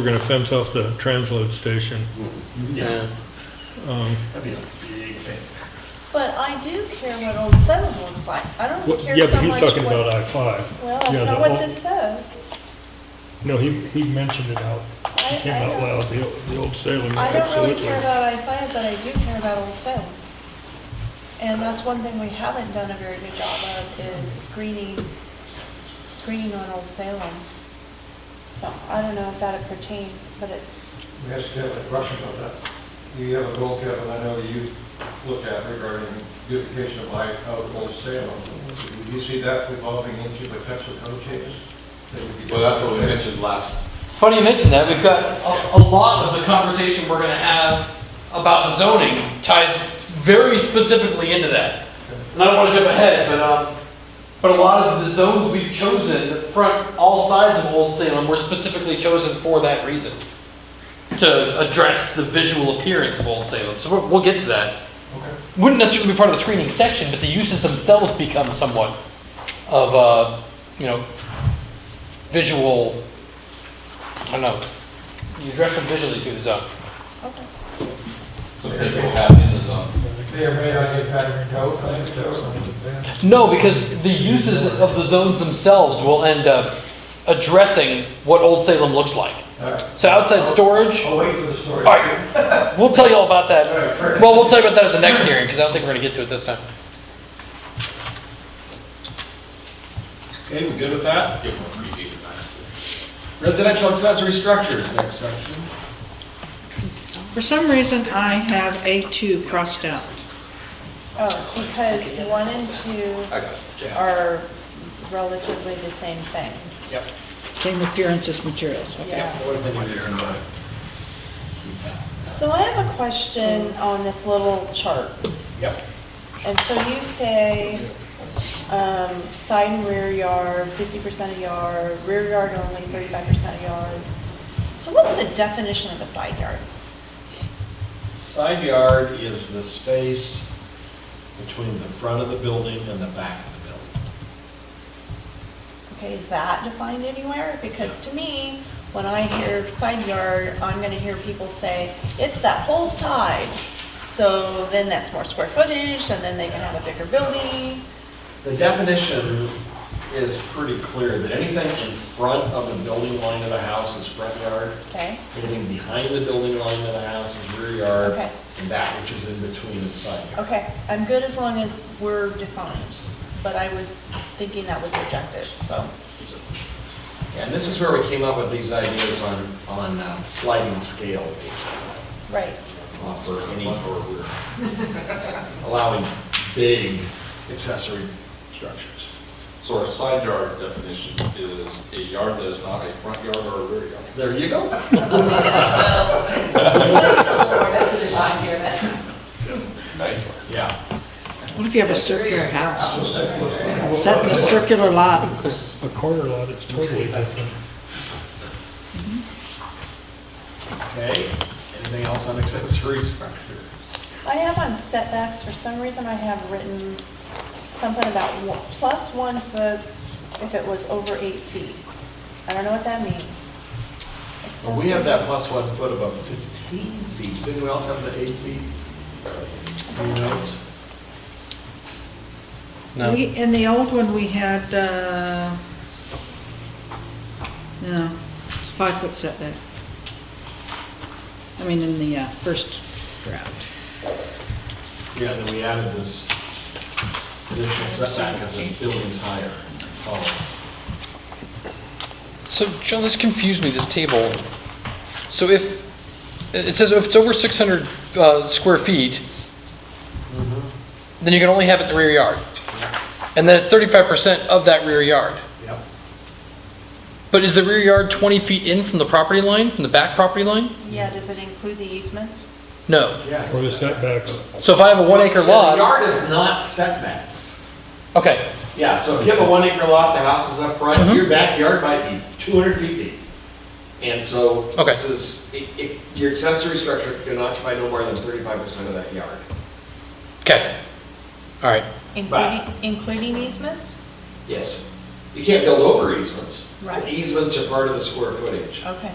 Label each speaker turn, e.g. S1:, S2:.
S1: We're gonna fence off the transload station.
S2: Yeah,
S1: Um,
S2: that'd be a big fence.
S3: But I do care what Old Salem looks like. I don't
S1: what-
S3: care
S1: Yeah, but
S3: so
S1: he's
S3: much
S1: talking about
S3: what.
S1: I-5.
S3: Well,
S1: yeah,
S3: that's
S1: the
S3: not what
S1: whole-
S3: this says.
S1: No, he, he mentioned it out,
S3: I-
S1: came
S3: I
S1: out
S3: don't-
S1: loud, the, old- the old Salem,
S3: I don't really
S1: absolutely.
S3: care about I-5, but I do care about Old Salem. And that's one thing we haven't done a very good job of is screening, screening on Old Salem. So I don't know if that pertains, but it,
S4: Let me ask Kevin a question about that. You have a goal, Kevin, I know that you looked at regarding beautification of life out of Old Salem. Do you see that evolving into potential code changes? That would be-
S5: Well, that's what we mentioned last,
S6: Funny you mention that, we've got a, a lot of the conversation we're gonna have about the zoning ties very specifically into that. And I don't wanna jump ahead, but, um, but a lot of the zones we've chosen, the front, all sides of Old Salem were specifically chosen for that reason. To address the visual appearance of Old Salem, so we'll, we'll get to that.
S4: Okay.
S6: Wouldn't necessarily be part of the screening section, but the uses themselves become somewhat of, uh, you know, visual I don't know. You address them visually through the zone.
S3: okay.
S5: some things will happen in the zone.
S4: May or may not get pattern code, I think so.
S6: No, because the uses of the zones themselves will end up addressing what Old Salem looks like.
S4: All right.
S6: So outside storage,
S4: I'll wait for the story.
S6: All right. we'll tell you all about
S4: All right, fair
S6: that.
S4: enough.
S6: Well, we'll tell you about that at the next hearing, because I don't think we're gonna get to it this time.
S2: Okay, we good with that?
S5: Give them a preview of that.
S2: Residential accessory structures, next section.
S7: For some reason, I have A2 crossed out.
S3: Oh, because one and two
S5: I got it, yeah.
S3: are relatively the same thing.
S5: Yep.
S7: Same appearance as materials.
S3: Yeah.
S2: What did we do tonight?
S3: So I have a question on this little chart.
S5: Yep.
S3: And so you say, um, side and rear yard, fifty percent of yard, rear yard only, thirty-five percent of yard. So what's the definition of a side yard?
S2: Side yard is the space between the front of the building and the back of the building.
S3: Okay, is that defined anywhere? Because to me, when I hear side yard, I'm gonna hear people say, it's that whole side. So then that's more square footage, and then they can have a bigger building.
S2: The definition is pretty clear, that anything in front of the building line of the house is front yard.
S3: Okay,
S2: Anything behind the building line of the house is rear yard.
S3: Okay.
S2: And that which is in between is side yard.
S3: okay, I'm good as long as we're defined, but I was thinking that was subjective, so.
S2: Yeah, Um, And this is where we came up with these ideas on, on uh, sliding scale, basically,
S3: Right,
S2: uh, for any, or we're allowing big accessory structures.
S8: So our side yard definition is a yard that is not a front yard or a rear yard.
S2: There you go.
S8: Nice one.
S2: Yeah.
S7: What if you have a circular house?
S4: Well,
S7: Set in a circular lot?
S1: A corner lot is totally different.
S2: Okay, anything else on accessory structure?
S3: I have on setbacks, for some reason I have written something about one- plus one foot if it was over eight feet. I don't know what that means.
S2: Well, we have that plus one foot above 15 feet. Does anyone else have the eight feet? Who knows?
S6: No.
S7: We- In the old one, we had, uh, no, five-foot setback. I mean, in the uh, first draft.
S2: Yeah, then we added this additional setback of the building's higher. Oh,
S6: So, John, this confused me, this table. So if, it it says if it's over 600 uh, square feet,
S2: Mm-hmm.
S6: then you can only have it in the rear yard. And then it's 35% of that rear yard.
S2: yep.
S6: But is the rear yard 20 feet in from the property line, from the back property line?
S3: Yeah, does it include the easements?
S6: No.
S2: Yes.
S1: Or the setbacks.
S6: So if I have a one acre
S2: Yeah, the
S6: lot,
S2: Yard is not setbacks.
S6: okay,
S2: Yeah, so if you have a one acre lot, the house is up front,
S6: Mhm.
S2: your backyard might be two hundred feet deep. And so
S6: Okay.
S2: this is, it, it, your accessory structure can occupy no more than thirty-five percent of that yard.
S6: okay. All right,
S3: Including, including easements?
S2: Yes. You can't build over easements.
S3: Right.
S2: Easements are part of the square footage.
S3: Okay.